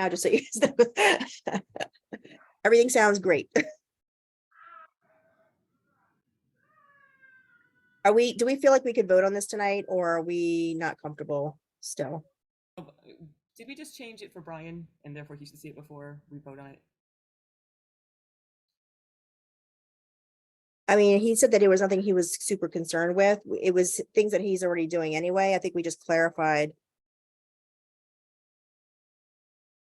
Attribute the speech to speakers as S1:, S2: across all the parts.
S1: now, just so you. know. Everything sounds great. Are we, do we feel like we could vote on this tonight or are we not comfortable still?
S2: Oh, b- Did we just change it for Brian and therefore he should see it before we vote on it?
S1: I mean, he said that it was nothing he was super concerned with. W- It was things that he's already doing anyway. I think we just clarified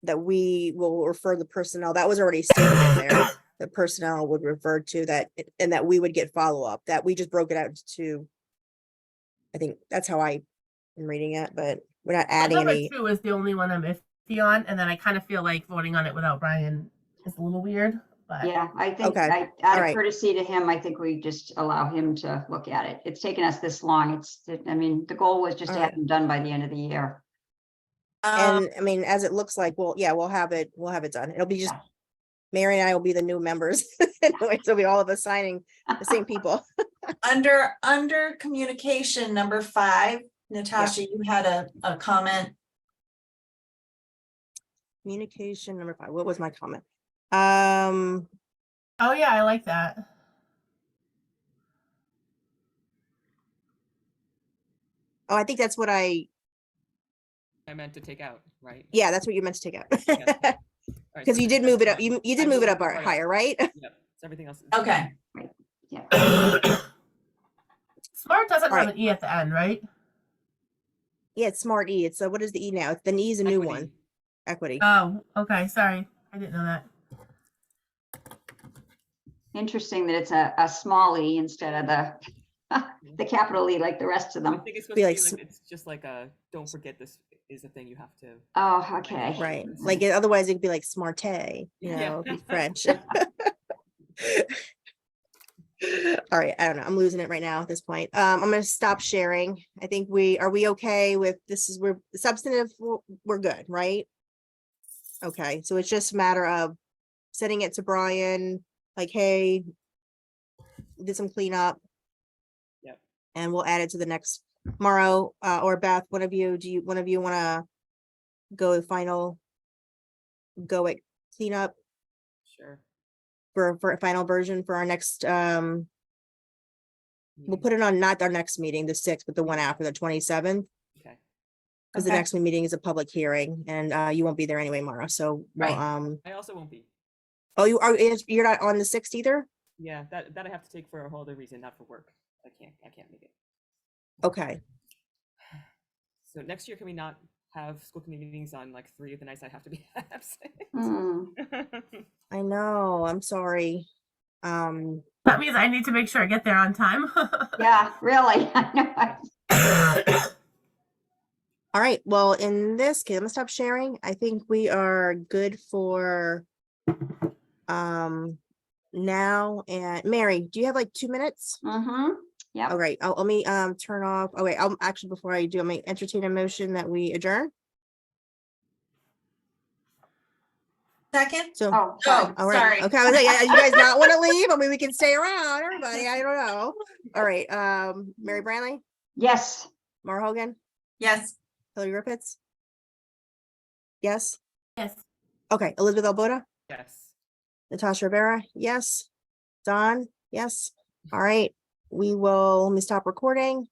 S1: that we will refer the personnel, that was already stated in there, the personnel would refer to that, it- and that we would get follow-up, that we just broke it out to I think that's how I am reading it, but we're not adding
S3: number
S1: any,
S3: two is the only one I'm iffy on, and then I kind of feel like voting on it without Brian is a little weird. But
S4: Yeah, I think,
S1: Okay,
S4: I-
S1: all
S4: out
S1: right.
S4: of courtesy to him, I think we just allow him to look at it. It's taken us this long. It's, I mean, the goal was just to
S1: All right.
S4: have them done by the end of the year.
S5: Um,
S1: and I mean, as it looks like, well, yeah, we'll have it, we'll have it done. It'll be just Mary and I will be the new members. Anyway, so we all of us signing the same people.
S5: Under, under communication, number five, Natasha, you had a, a comment.
S1: Communication number five. What was my comment? Um,
S3: oh yeah, I like that.
S1: oh, I think that's what I,
S2: I meant to take out, right?
S1: yeah, that's what you meant to take
S2: Yeah.
S1: out. Because you did move it up, you, you did move it up our- higher, right?
S2: Yep, so everything else. is-
S5: Okay,
S3: Smart doesn't have
S1: Right.
S3: an e at the end, right?
S1: Yeah, it's smart E. It's, uh, what is the E now? It's The E is a new one,
S2: Equity.
S1: equity.
S3: Oh, okay. Sorry, I didn't know that.
S4: Interesting that it's a, a small e instead of the, the capital E like the rest of
S2: I
S4: them.
S2: think it's supposed
S1: Be
S2: to
S1: like
S2: be like, it's just like a, don't forget this is a thing you have to.
S4: Oh, okay.
S1: Right, like it- otherwise it'd be like smarte, you
S2: Yeah.
S1: know, it'd be French. All right, I don't know, I'm losing it right now at this point. Um, I'm gonna stop sharing. I think we, are we okay with, this is, we're substantive, we're, we're good, right? Okay, so it's just a matter of sending it to Brian, like, hey, did some cleanup.
S2: Yep.
S1: And we'll add it to the next, Morrow, uh, or Beth, one of you, do you, one of you wanna go final go at cleanup
S2: Sure.
S1: for, for a final version for our next, um, we'll
S2: meeting.
S1: put it on not our next meeting, the sixth, but the one after the twenty-seventh.
S2: Okay.
S1: Cause the
S5: Okay.
S1: next meeting is a public hearing and, uh, you won't be there anyway, Mara. So, we'll,
S5: Right.
S1: um,
S2: I also won't be.
S1: oh, you are, is- you're not on the sixth either?
S2: Yeah, that, that I have to take for a whole other reason, not for work. I can't, I can't make it.
S1: Okay.
S2: So next year, can we not have school committee meetings on like three of the nights I have to be absent?
S4: Hmm,
S1: Mm. I know, I'm sorry. Um,
S3: That means I need to make sure I get there on time.
S4: Yeah, really. I know. I-
S1: all right, well, in this case, I'm gonna stop sharing. I think we are good for, um, now. And Mary, do you have like two minutes?
S4: Mhm. Yep.
S1: All right, I'll, let me um turn off, oh wait, I'll actually, before I do, I'm gonna entertain a motion that we adjourn,
S5: Second?
S1: so.
S4: Oh, sorry.
S5: Oh,
S1: All right,
S5: sorry.
S1: okay, I was like, yeah, you guys not want to leave, I mean, we can stay around, everybody, I don't know. All right, um, Mary Branley,
S4: Yes.
S1: Mara Hogan,
S5: Yes,
S1: Hillary Rippetts. Yes,
S3: yes.
S1: okay, Elizabeth Albota,
S2: Yes.
S1: Natasha Rivera, yes. Don, yes, all right, we will, let me stop recording.